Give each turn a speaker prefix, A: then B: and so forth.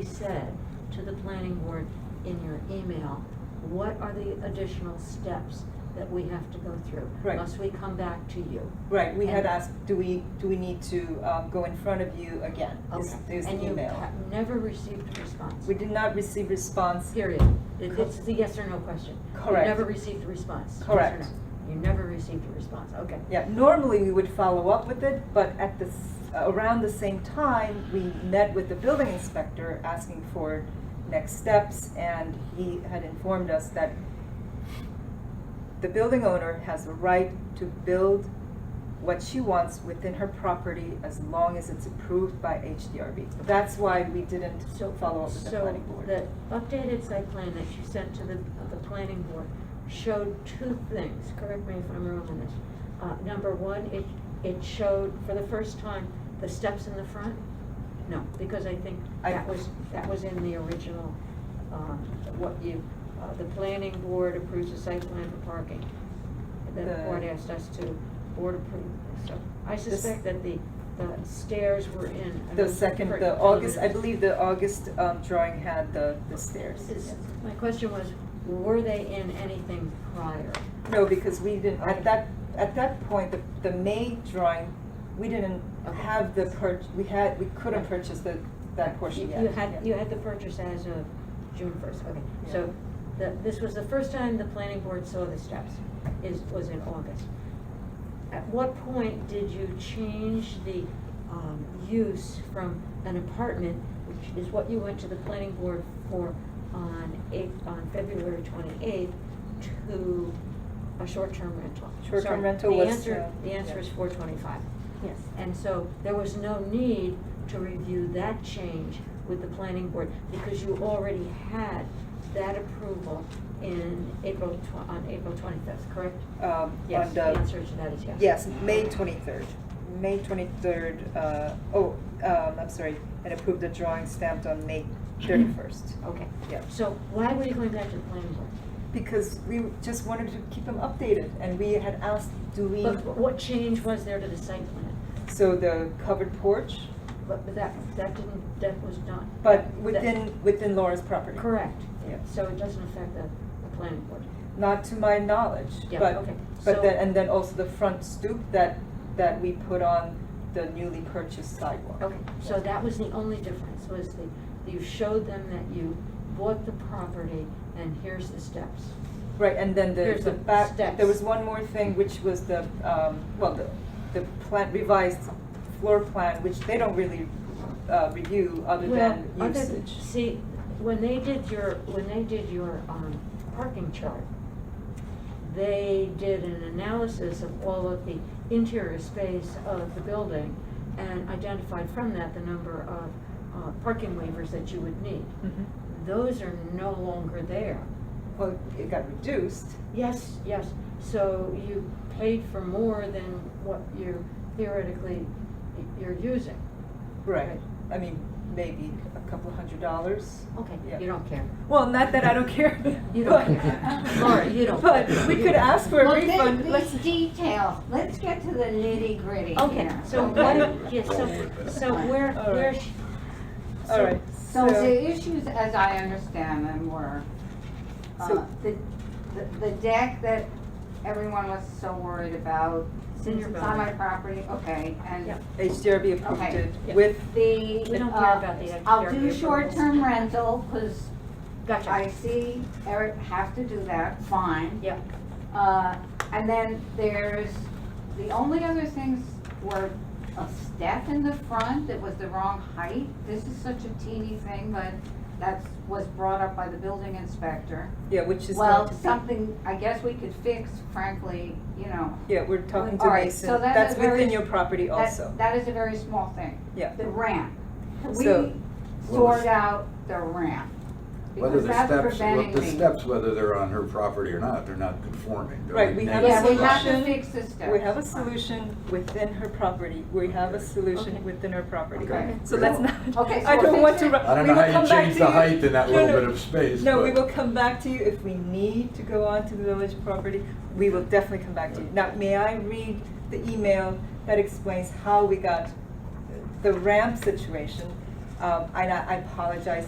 A: you said to the planning board in your email, what are the additional steps that we have to go through?
B: Right.
A: Must we come back to you?
B: Right, we had
A: And-
B: asked, do we, do we need to um, go in front of you again? Is-
A: Okay.
B: There's the
A: And you
B: email.
A: have never received a response?
B: We did not receive response.
A: Period. It- This is a yes or no question.
B: Correct.
A: You never received a response? yes or
B: Correct.
A: no? You never received a response, okay.
B: Yeah, normally we would follow up with it, but at this, around the same time, we met with the building inspector asking for next steps, and he had informed us that the building owner has a right to build what she wants within her property as long as it's approved by HDRB. That's why we didn't
A: So,
B: follow up with the planning board.
A: So the updated site plan that you sent to the, the planning board showed two things, correct me if I'm wrong on this. Uh, number one, it, it showed for the first time the steps in the front? No, because I think
B: I-
A: that was, that was in the original, um, what you, uh, the planning board approves the site plan for parking. The
B: The-
A: board asked us to, board approve, so I
B: This-
A: suspect that the, the stairs were in.
B: The second, the August, I believe the August um, drawing had the the stairs.
A: Is- My question was, were they in anything prior?
B: No, because we didn't, at that, at that point, the, the May drawing, we didn't
A: Okay.
B: have the purch, we had, we couldn't
A: Right.
B: purchase the, that portion
A: You-
B: yet.
A: You had,
B: yeah.
A: you had the purchase as of June first, okay. So the, this was the first time the planning board saw the steps, is, was in August. At what point did you change the, um, use from an apartment, which is what you went to the planning board for on eight, on February twenty-eighth, to a short-term rental?
B: Short-term
A: Sorry,
B: rental
A: the
B: was,
A: answer-
B: uh,
A: The answer
B: yeah.
A: is four twenty-five.
B: Yes.
A: And so there was no need to review that change with the planning board because you already had that approval in April, tw- on April 25th, correct?
B: Um,
A: Yes, the
B: on the,
A: answer to that is yes.
B: yes, May twenty-third, May twenty-third, uh, oh, um, I'm sorry, and approved the drawing stamped on May thirty-first.
A: Okay.
B: Yeah.
A: So why were you going back to the planning board?
B: Because we just wanted to keep them updated, and we had asked, do we,
A: But what change was there to the site plan?
B: so the covered porch,
A: But but that, that didn't, that was not.
B: but
A: that-
B: within, within Laura's property.
A: Correct.
B: Yeah.
A: So it doesn't affect the, the planning board.
B: Not to my knowledge,
A: Yeah,
B: but,
A: okay. So-
B: but then, and then also the front stoop that, that we put on the newly purchased sidewalk.
A: Okay, so that was the only difference, was the, you showed them that you bought the property and here's the steps.
B: Right, and then the,
A: Here's
B: the
A: the
B: back,
A: steps.
B: there was one more thing, which was the, um, well, the, the plan, revised floor plan, which they don't really, uh, review other
A: Well,
B: than
A: other-
B: usage.
A: See, when they did your, when they did your, um, parking chart, they did an analysis of all of the interior space of the building and identified from that the number of, uh, parking waivers that you would need.
B: Mhm.
A: Those are no longer there.
B: Well, it got reduced,
A: Yes, yes, so you paid for more than what you're theoretically, you're using.
B: right, I mean, maybe a couple hundred dollars.
A: Okay,
B: Yeah.
A: you don't care.
B: Well, not that I don't care.
A: You don't
B: but-
A: care. Laura, you don't
B: But
A: care.
B: we
A: You
B: could
A: don't-
B: ask for a
C: Well, then,
B: refund.
C: Let's detail, let's get to the nitty gritty
A: Okay,
C: here.
A: so
B: Okay.
A: what, yes, so, so where,
B: All
A: where,
B: right.
A: sh-
B: All right,
C: So the issues, as I understand them, were, uh,
B: So-
C: the, the- the deck that everyone was so worried about, since
A: your
C: it's on my
A: building.
C: property, okay, and
A: Yep.
B: HDRB approved
C: Okay.
B: it
A: Yeah.
B: with,
C: the.
A: We don't
C: uh,
A: care about the exterior
C: I'll do
A: approvals.
C: short-term rental, cause I
A: gotcha,
C: see Eric has to do that, fine.
A: yeah,
C: Uh, and then there's, the only other things were a step in the front that was the wrong height. This is such a teeny thing, but that's, was brought up by the building inspector.
B: yeah, which is going
C: Well,
B: to be-
C: something, I guess we could fix, frankly, you know.
B: Yeah, we're talking to
C: All right,
B: Mason.
C: so that's
B: That's
C: a very-
B: within your property
C: that-
B: also.
C: That is a very small thing.
B: Yeah.
C: The ramp. Can
B: So-
C: we sort out the ramp?
D: Whether
C: Because
D: the
C: that's
D: steps,
C: preventing
D: what
C: me.
D: the steps, whether they're on her property or not, they're not conforming. They're
B: Right, we have a
C: Yeah, we have
B: solution.
C: to fix the steps.
B: We have a solution within her property. We have a
A: Okay.
B: solution within her property.
C: Okay.
B: So let's not,
C: Okay, so
B: I don't
C: we'll
B: want
C: fix
B: to.
C: it.
B: ru-
D: I don't
B: we
D: know
B: will
D: how
B: come
D: you
B: back
D: change
B: to
D: the
B: you.
D: height in that
B: No,
D: little
B: no.
D: bit of space,
B: No, we
D: but-
B: will come back to you if we need to go on to the village property. We will definitely come back to you. Now, may I read the email that explains how we got the ramp situation? Um, and I I apologize